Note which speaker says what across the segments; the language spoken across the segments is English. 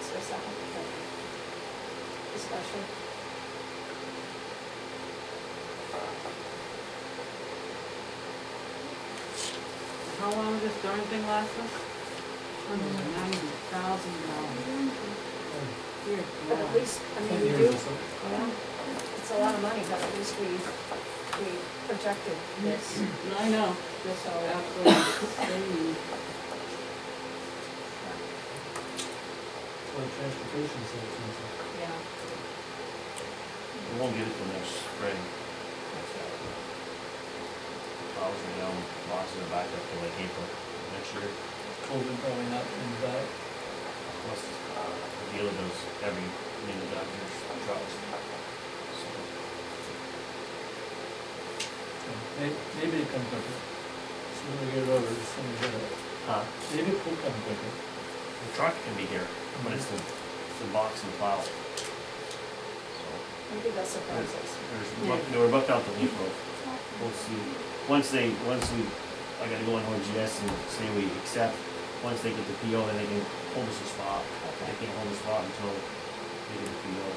Speaker 1: second, discussion.
Speaker 2: How long will this darn thing last us? Hundred and ninety thousand dollars. Dear
Speaker 1: But at
Speaker 2: God.
Speaker 1: least, I mean, we do, it's a lot of money, but at least we, we projected this,
Speaker 2: I know,
Speaker 1: this all.
Speaker 2: absolutely. They need-
Speaker 3: Well, transportation savings.
Speaker 1: Yeah.
Speaker 4: We won't get it till next spring. Plows are down, boxes are back up till like April next year.
Speaker 3: COVID probably not coming back.
Speaker 4: Plus, the dealer does every minute doctor's trucks. So,
Speaker 3: so may- Maybe it comes quicker. Sooner we get it over, the sooner we get it.
Speaker 4: uh,
Speaker 3: Maybe it will come quicker.
Speaker 4: The truck can be here, but it's the, it's the box and plow. So,
Speaker 1: Maybe that surprises.
Speaker 4: there's, bu- they were bucked out the leaf road. We'll see. Once they, once we, I gotta go on OGS and say we accept, once they get the PO, then they can hold us a spot. They can't hold a spot until they get the PO.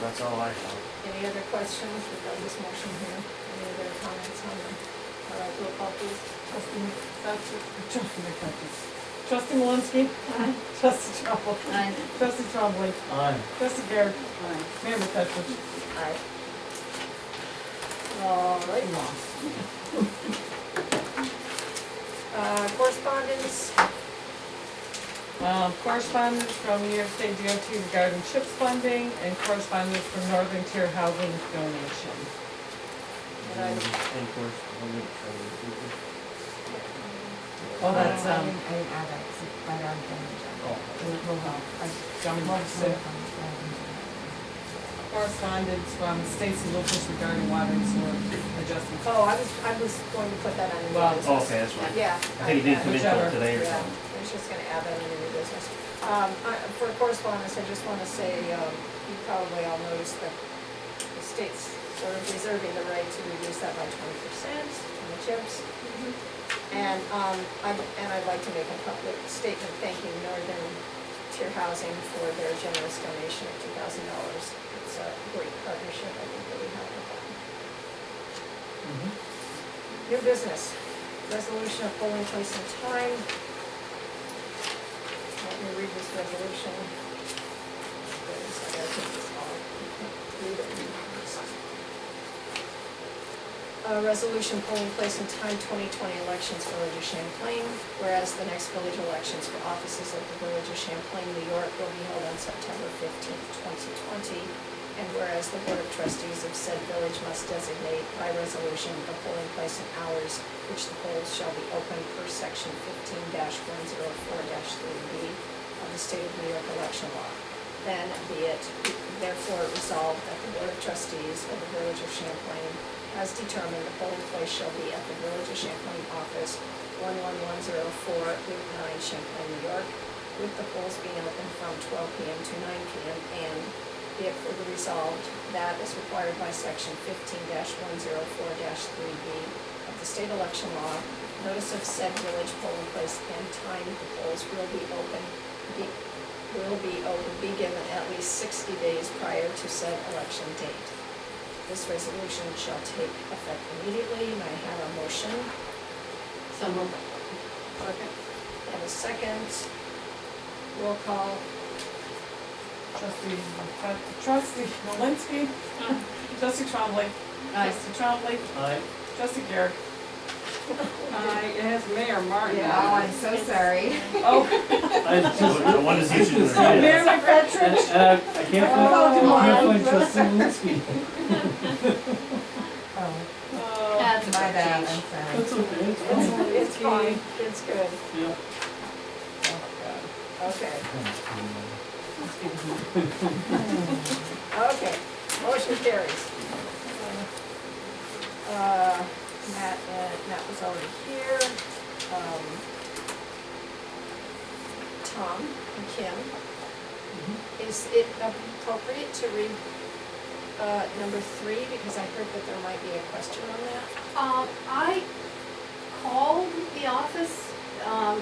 Speaker 4: That's all I have.
Speaker 1: Any other questions regarding this motion here? Any other comments on them? All right, roll call please.
Speaker 5: Trustee, that's, trustee McFetrich. Trustee Malinsky. Aye. Trustee Trombley.
Speaker 2: Aye.
Speaker 5: Trustee Trombley.
Speaker 3: Aye.
Speaker 5: Trustee Garrett. Aye. Mayor McFetrich.
Speaker 1: Aye. All right. Uh, correspondence,
Speaker 5: Um, Correspondence from New York State DOT regarding CHIPS funding and correspondence from Northern Tier Housing donation.
Speaker 1: But I-
Speaker 4: Any questions? I'm gonna try to do this.
Speaker 5: Oh, that's,
Speaker 6: I
Speaker 5: um,
Speaker 6: didn't, I didn't add that, it's right on the agenda.
Speaker 3: Oh,
Speaker 6: We'll help. I
Speaker 5: Johnny Marks, uh,
Speaker 6: I
Speaker 5: correspondence from Stacy Lucas regarding water and sewer adjustments.
Speaker 1: oh, I was, I was going to put that on
Speaker 5: Well,
Speaker 1: new business.
Speaker 4: Okay, that's right.
Speaker 1: Yeah.
Speaker 4: I think it didn't come in till
Speaker 5: Whichever,
Speaker 4: today or
Speaker 1: Yeah,
Speaker 4: something.
Speaker 1: I was just gonna add that into new business. Um, I, for correspondence, I just wanna say, um, you probably all noticed that the state's sort of reserving the right to reduce that by twenty percent on the chips. And, um, I, and I'd like to make a public statement thanking Northern Tier Housing for their generous donation of two thousand dollars. It's a great partnership, I think, really helped with that.
Speaker 3: mhm.
Speaker 1: New business, resolution of polling place and time. Let me read this resolution. Wait a second, I think it's all- read it. Uh, resolution polling place and time twenty twenty elections Village of Champlain, whereas the next village elections for offices of the Village of Champlain, New York will be held on September fifteenth, twenty twenty. And whereas the Board of Trustees of said village must designate by resolution the polling place and hours which the polls shall be open per section fifteen one zero four three B of the State of New York election law. Then be it therefore resolved that the Board of Trustees of the Village of Champlain has determined the polling place shall be at the Village of Champlain office one one one zero four Route nine Champlain, New York, with the polls being open from twelve PM to nine PM and be it further resolved that as required by section fifteen one zero four three B of the state election law, notice of said village polling place and time the polls will be open, be, will be open, be given at least sixty days prior to said election date. This resolution shall take effect immediately, and I have a motion
Speaker 2: So moved. Second.
Speaker 1: and a second. Roll call,
Speaker 5: Trustee, McFetrich- trustee Malinsky. Trustee Trombley.
Speaker 2: Aye.
Speaker 5: Trustee Trombley.
Speaker 3: Aye.
Speaker 5: Trustee Garrett.
Speaker 2: Uh, it has Mayor Martin.
Speaker 6: Oh, I'm so sorry.
Speaker 5: Oh,
Speaker 3: I just-
Speaker 4: I wanted to see if you
Speaker 3: just-
Speaker 4: were here.
Speaker 5: Mayor
Speaker 3: And,
Speaker 5: McFetrich.
Speaker 3: and I, I can't
Speaker 5: Oh,
Speaker 3: find, I can't find
Speaker 5: my.
Speaker 3: trustee Malinsky.
Speaker 6: Oh,
Speaker 5: Oh,
Speaker 2: That's
Speaker 6: my bad,
Speaker 2: change.
Speaker 6: I'm
Speaker 3: That's
Speaker 6: sorry.
Speaker 3: okay,
Speaker 1: it's, it's
Speaker 3: it's fine.
Speaker 1: fine, it's good,
Speaker 3: Yeah.
Speaker 1: okay.
Speaker 3: Thanks,
Speaker 1: Okay, motion carries. Uh, Matt, uh, Matt was already here. Um, Tom and Kim. Is it appropriate to read uh, number three, because I heard that there might be a question on that?
Speaker 7: Um, I called the office, um,